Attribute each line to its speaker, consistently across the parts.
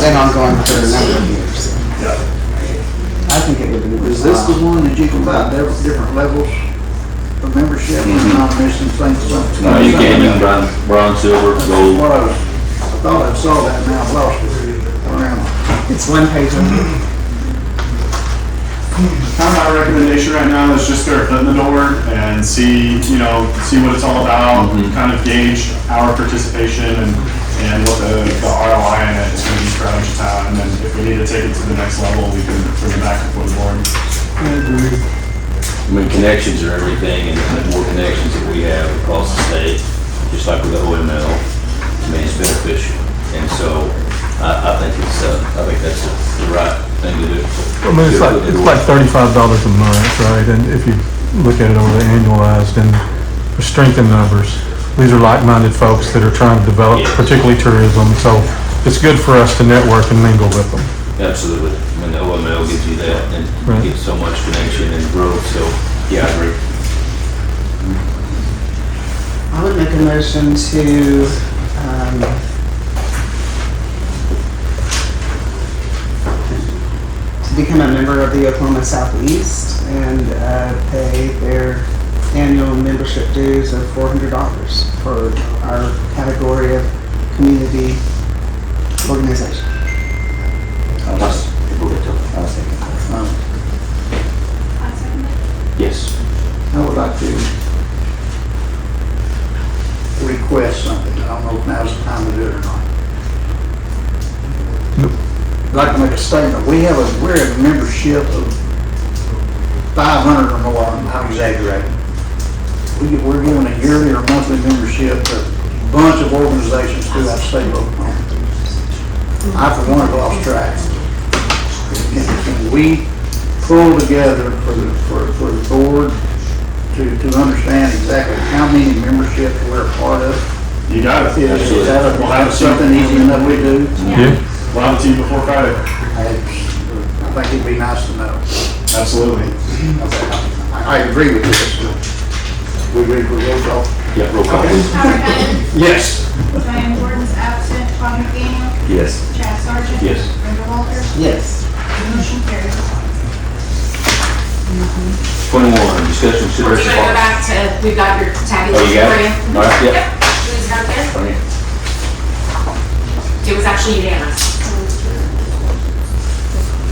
Speaker 1: Then ongoing for a number of years. I think it would be.
Speaker 2: Is this the one that you can buy different, different levels of membership, and not missing things? something-
Speaker 3: Mm-hmm. No, Uh, you can, you can buy bronze, silver,
Speaker 2: That's
Speaker 3: gold.
Speaker 2: What I was, I thought I saw that, now I've lost it around.
Speaker 1: It's one page on
Speaker 4: Kind of my recommendation right now is just start foot in the door and see, you know, see what it's all about, kind of gauge our participation and, and what the, the ROI in it is gonna be for our town. And if we need to take it to the next level, we can bring it back before the board.
Speaker 3: I mean, connections are everything, and the more connections that we have across the state, just like with the OML, I mean, it's beneficial. And so, I, I think it's, uh, I think that's the right thing to do.
Speaker 5: I mean, it's like, it's like thirty-five dollars a month, right? And if you look at it over the annualized and the strength in numbers, these are like-minded folks that are trying to develop,
Speaker 3: Yes.
Speaker 5: particularly tourism. So it's good for us to network and mingle with them.
Speaker 3: Absolutely. I mean, the OML gives you that, and
Speaker 5: Right.
Speaker 3: gives so much connection and growth, so, yeah, I agree.
Speaker 1: I would make a motion to, um, to become a member of the Oklahoma Southeast and, uh, pay their annual membership dues of four hundred dollars for our category of community organization.
Speaker 3: Yes.
Speaker 2: I would like to request something. I don't know if now's the time to do it or not. I'd like to make a statement. We have a, we're a membership of five hundred or more. I'm- I'm exaggerating. We, get- we're given a yearly or monthly membership to a bunch of organizations throughout the state of Oklahoma. I for one have lost track. Can- Can we pull together for the, for, for the board to, to understand exactly how many memberships we're a part of.
Speaker 4: You got it.
Speaker 2: Is is that a-
Speaker 4: We'll have a
Speaker 2: something
Speaker 4: seat.
Speaker 2: easy enough we do?
Speaker 5: Yeah.
Speaker 4: We'll have a team before Friday.
Speaker 2: I I think it'd be nice to know.
Speaker 4: Absolutely.
Speaker 2: I I agree with this. We agree with roll call?
Speaker 3: Yeah, roll call.
Speaker 6: Howard Haggard,
Speaker 2: Yes.
Speaker 6: Diane Jordan's absent, Todd McDaniel,
Speaker 3: Yes.
Speaker 6: Chad Sargent.
Speaker 3: Yes.
Speaker 6: Brenda Walters,
Speaker 1: Yes.
Speaker 6: motion carries.
Speaker 3: Twenty-one, discussion
Speaker 7: We're
Speaker 3: consideration.
Speaker 7: gonna go back to, we've got your
Speaker 3: Oh,
Speaker 7: tabulation
Speaker 3: you got
Speaker 7: for you.
Speaker 3: it? All right,
Speaker 7: Yep,
Speaker 3: yeah.
Speaker 7: it was right there.
Speaker 3: All right.
Speaker 7: It was actually unanimous.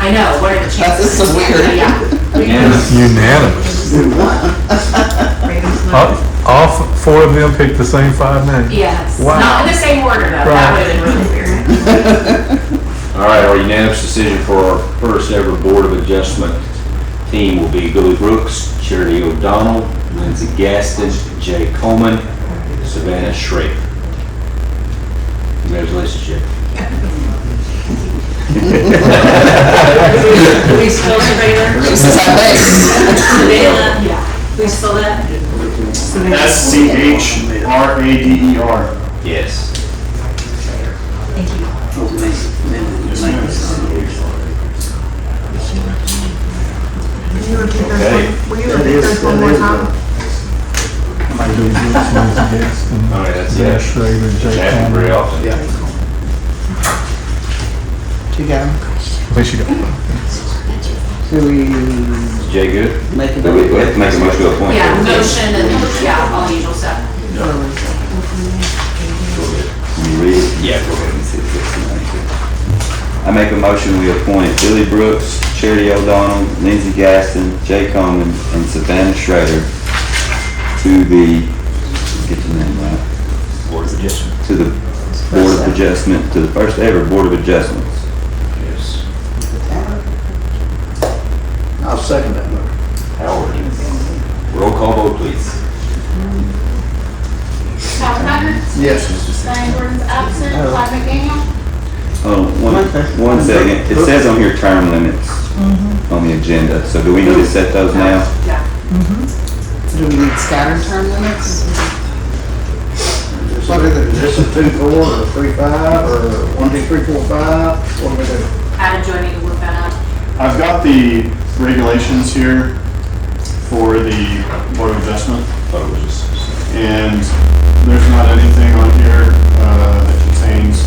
Speaker 7: I know, what are the chances?
Speaker 1: That's so weird.
Speaker 7: Yeah.
Speaker 3: Unanimous.
Speaker 5: Unanimous. All, all f- four of them picked the same five names.
Speaker 7: Yes,
Speaker 5: Wow.
Speaker 7: not in the same order though, that
Speaker 5: Right.
Speaker 7: would have been really weird.
Speaker 3: All right, our unanimous decision for our first ever Board of Adjustment team will be Billy Brooks, Charity O'Donnell, Lindsey Gaston, Jay Coleman, Savannah Schrader. Congratulations, Jay.
Speaker 8: Please spell Sabrina.
Speaker 1: She says, I
Speaker 8: Savannah. Please spell that.
Speaker 4: S C H R A D E R.
Speaker 3: Yes. Okay.
Speaker 2: That is, that is. uh,
Speaker 3: All right, that's
Speaker 5: Yeah,
Speaker 3: it.
Speaker 5: Schrader, Jay
Speaker 3: Happens very
Speaker 5: Conner.
Speaker 3: often.
Speaker 2: Yeah.
Speaker 1: To go.
Speaker 5: I think she got
Speaker 1: Do we
Speaker 3: Jay, good?
Speaker 1: make a
Speaker 3: We we
Speaker 1: vote?
Speaker 3: have to make a motion to appoint.
Speaker 7: Yeah,
Speaker 3: her.
Speaker 7: motion and, yeah, all the usual stuff.
Speaker 3: You read it? Yeah, go ahead and see if it's in there. I make a motion, we appoint Billy Brooks, Charity O'Donnell, Lindsey Gaston, Jay Coleman, and Savannah Schrader to the, get the name right. Board of Adjustment. To the Board of Adjustment, to the first ever Board of Adjustments. Yes.
Speaker 2: I'll second that motion.
Speaker 3: Howard. Roll call vote, please.
Speaker 6: Howard Haggard,
Speaker 2: Yes.
Speaker 6: Diane Jordan's absent, Todd McDaniel,
Speaker 9: Oh, one, one second. Mm-hmm. It says on here term limits on the agenda, so do we need to set those now?
Speaker 7: Yeah,
Speaker 1: Do we need scattered term limits?
Speaker 2: What is it? Is this a two, four, or three, five, or one, two, three, four, five? What do we do?
Speaker 7: Adam, do I need to look that up?
Speaker 4: I've got the regulations here for the Board of Adjustment. And there's not anything on here uh, that contains